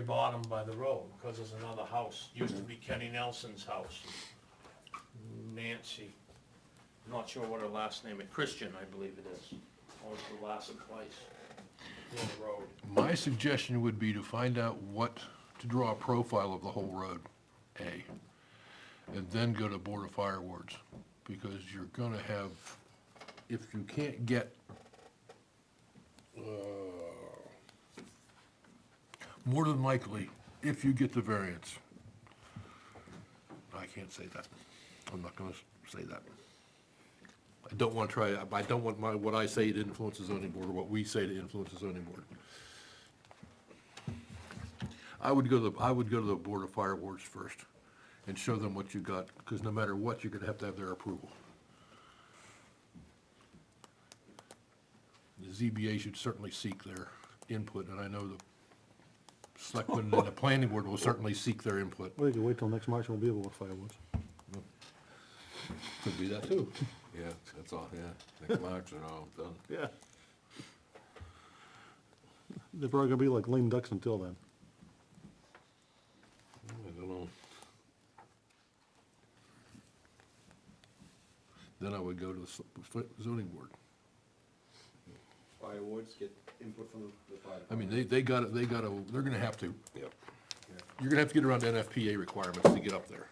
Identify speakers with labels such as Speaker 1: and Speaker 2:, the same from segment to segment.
Speaker 1: very bottom by the road, because there's another house, used to be Kenny Nelson's house. Nancy, not sure what her last name, is. Christian, I believe it is, owns the last place on the road.
Speaker 2: My suggestion would be to find out what, to draw a profile of the whole road, A, and then go to Board of Fire Wards, because you're gonna have, if you can't get, uh, more than likely, if you get the variance, I can't say that. I'm not gonna say that. I don't wanna try, I don't want my, what I say to influence the zoning board, or what we say to influence the zoning board. I would go to, the I would go to the Board of Fire Wards first and show them what you got, because no matter what, you're gonna have to have their approval. The ZBA should certainly seek their input, and I know the selectmen and the planning board will certainly seek their input.
Speaker 3: Well, you can wait till next March, and we'll be able to fireworks.
Speaker 2: Could be that too.
Speaker 4: Yeah, that's all, yeah. Next March and all done.
Speaker 3: Yeah. They're probably gonna be like lame ducks until then.
Speaker 4: I don't know.
Speaker 2: Then I would go to the s- zoning board.
Speaker 5: Fire wards, get input from the fire.
Speaker 2: I mean, they, they gotta, they gotta, they're gonna have to,
Speaker 4: Yep.
Speaker 2: you're gonna have to get around NFPA requirements to get up there.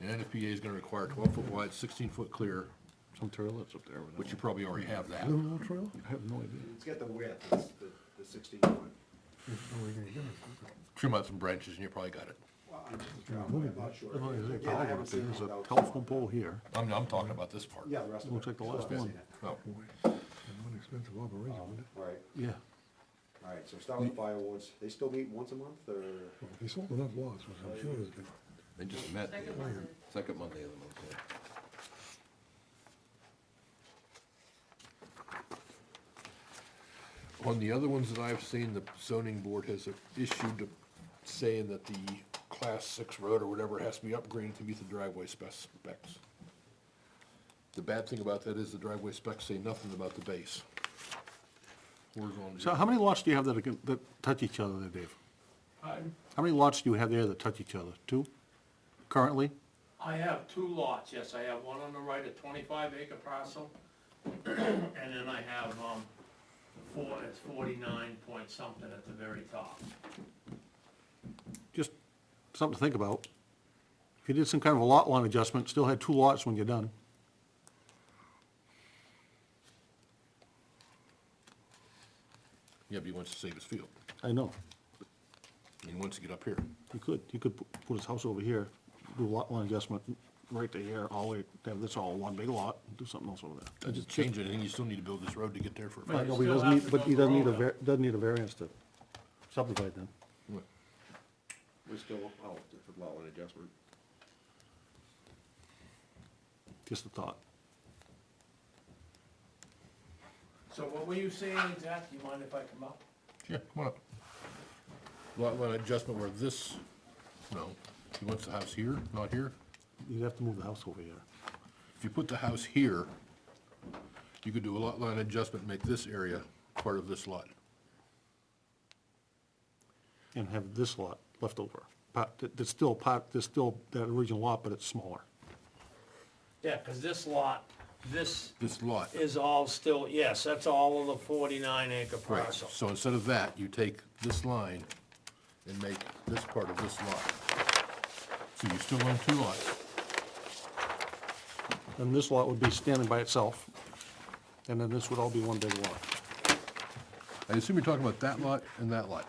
Speaker 2: And NFPA is gonna require twelve foot wide, sixteen foot clear,
Speaker 3: Some toilets up there.
Speaker 2: which you probably already have that.
Speaker 3: Aluminum trail? I have no idea.
Speaker 5: It's got the width, it's the, the sixteen one.
Speaker 2: Trim out some branches and you probably got it.
Speaker 5: Well, I'm just a driveway, I'm not sure. Again, I haven't seen it
Speaker 3: There's a
Speaker 5: without
Speaker 3: telephone
Speaker 5: someone.
Speaker 3: pole here.
Speaker 2: I'm, I'm talking about this part.
Speaker 5: Yeah, the rest of it.
Speaker 3: Looks like the
Speaker 5: so I
Speaker 3: last
Speaker 5: haven't
Speaker 3: one.
Speaker 5: seen it.
Speaker 2: Oh,
Speaker 5: Um, All right,
Speaker 3: Yeah.
Speaker 5: all right, so start with the fire wards. They still meet once a month or?
Speaker 3: They sold enough lots, I'm sure they
Speaker 4: They just met. the
Speaker 6: Second
Speaker 4: other-
Speaker 6: Monday.
Speaker 4: Second Monday of the month, yeah.
Speaker 2: On the other ones that I've seen, the zoning board has issued saying that the class six road or whatever has to be upgraded to meet the driveway spec- specs. The bad thing about that is the driveway specs say nothing about the base. Horizontal.
Speaker 3: So how many lots do you have that, are gon- that touch each other there, Dave? How many lots do you have there that touch each other? Two currently?
Speaker 1: I have two lots, yes, I have one on the right, a twenty-five acre parcel, and then I have, um, four, it's forty-nine point something at the very top.
Speaker 3: Just something to think about. If you did some kind of a lot line adjustment, still had two lots when you're done.
Speaker 2: Yeah, but he wants to save his field.
Speaker 3: I know.
Speaker 2: He wants to get up here.
Speaker 3: You could, you could pu- put his house over here, do a lot line adjustment right to here, all, the way- have this all one big lot, do something else over there.
Speaker 2: Doesn't change anything. You still need to build this road to get there for. a
Speaker 1: Right.
Speaker 3: I
Speaker 2: fact.
Speaker 3: know, but he
Speaker 1: Still
Speaker 3: doesn't
Speaker 1: have to
Speaker 3: need, but he
Speaker 1: build the
Speaker 3: doesn't need a,
Speaker 1: road
Speaker 3: var- doesn't need a variance to subdivide then.
Speaker 5: We're still oh, out for lot line adjustment.
Speaker 3: Just a thought.
Speaker 1: So what were you saying exactly, you mind if I come up?
Speaker 2: Yeah, come on up. Lot line adjustment where this, no, he wants the house here, not here.
Speaker 3: You'd have to move the house over here.
Speaker 2: If you put the house here, you could do a lot line adjustment, make this area part of this lot.
Speaker 3: and have this lot left over. Pot, that- that's still pot, that's still that original lot, but it's smaller.
Speaker 1: Yeah, cause this lot, this
Speaker 2: This lot.
Speaker 1: is all still, yes, that's all of the forty-nine acre
Speaker 2: Right,
Speaker 1: parcel.
Speaker 2: so instead of that, you take this line and make this part of this lot. So you still own two lots.
Speaker 3: And this lot would be standing by itself, and then this would all be one big lot.
Speaker 2: I assume you're talking about that lot and that lot.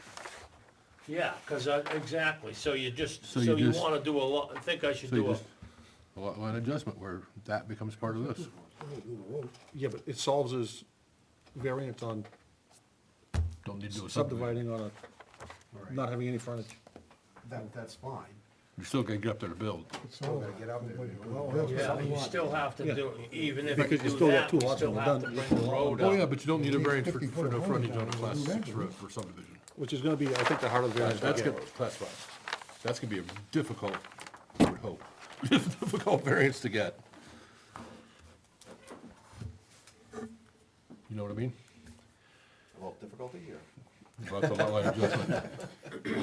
Speaker 1: Yeah, cause I, exactly, so you just, so
Speaker 2: So you
Speaker 1: you
Speaker 2: just-
Speaker 1: wanna do a lot, I think I should
Speaker 2: So you
Speaker 1: do a,
Speaker 2: just, a lot line adjustment where that becomes part of this.
Speaker 3: Yeah, but it solves his variance on
Speaker 2: Don't need to do a subdivision.
Speaker 3: subdividing on a, not having any frontage.
Speaker 5: That, that's fine.
Speaker 2: You're still gonna get up there to build.
Speaker 5: Still gotta get out there.
Speaker 1: yeah, you still have to
Speaker 3: Yeah.
Speaker 1: do, even if
Speaker 3: Because
Speaker 1: you
Speaker 3: you
Speaker 1: do
Speaker 3: still got
Speaker 1: that,
Speaker 3: two
Speaker 1: you
Speaker 3: lots
Speaker 1: still
Speaker 3: when
Speaker 1: have
Speaker 3: you're
Speaker 1: to
Speaker 3: done.
Speaker 1: bring the road
Speaker 2: Oh, yeah,
Speaker 1: up.
Speaker 2: but you don't need a variance for, for no frontage on a class six road for subdivision.
Speaker 3: Which is gonna be, I think, the heart of the variance.
Speaker 2: That's gonna, class five. That's gonna be a difficult, I would hope, difficult variance to get. You know what I mean?
Speaker 5: Well, difficulty here.
Speaker 2: About the lot line adjustment.